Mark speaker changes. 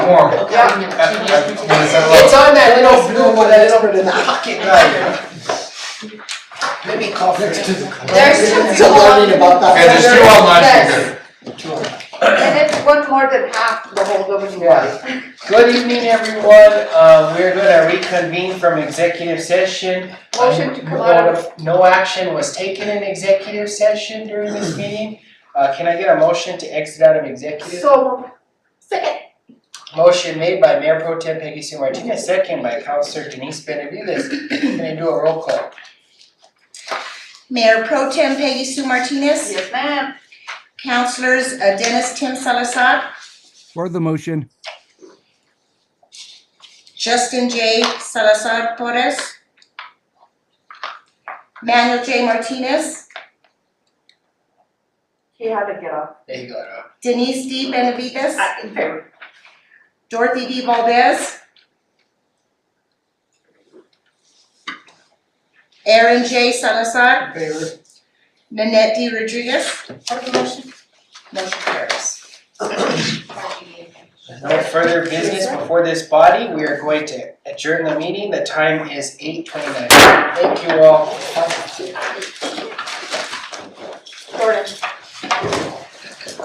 Speaker 1: warrant.
Speaker 2: It's on that little blue one, that little pocket knife. Maybe coffee.
Speaker 3: Next to the.
Speaker 4: There's two
Speaker 3: It's a learning
Speaker 4: people.
Speaker 3: about
Speaker 1: Okay,
Speaker 3: that.
Speaker 1: there's two online speakers.
Speaker 4: And it's one more than half the whole governing body.
Speaker 2: Good evening, everyone. Uh, we're gonna reconvene from executive session.
Speaker 4: Motion to come
Speaker 2: No-
Speaker 4: out of,
Speaker 2: No action was taken in executive session during this meeting. Uh, can I get a motion to exit out of executive?
Speaker 4: so, second,
Speaker 2: Motion made by Mayor Pro Tem Peggy Sue Martinez, second by Councilor Denise Benavides. Can I do a roll call?
Speaker 5: Mayor Pro Tem Peggy Sue Martinez.
Speaker 4: yes ma'am.
Speaker 5: Councilors uh, Dennis Tim Salazar,
Speaker 6: For the motion,
Speaker 5: Justin J. Salazar Torres, Manuel J. Martinez,
Speaker 4: He had to get off.
Speaker 2: There you go. Rob.
Speaker 5: Denise D. Benavides,
Speaker 4: I- In favor.
Speaker 5: Dorothy D. Valdez, Aaron J. Salazar,
Speaker 2: In favor.
Speaker 5: Nanette D. Rodriguez.
Speaker 4: Hold the motion.
Speaker 5: Motion carries.
Speaker 2: No further business before this body, we are going to adjourn the meeting, the time is eight twenty-nine. Thank you all.
Speaker 4: Jordan.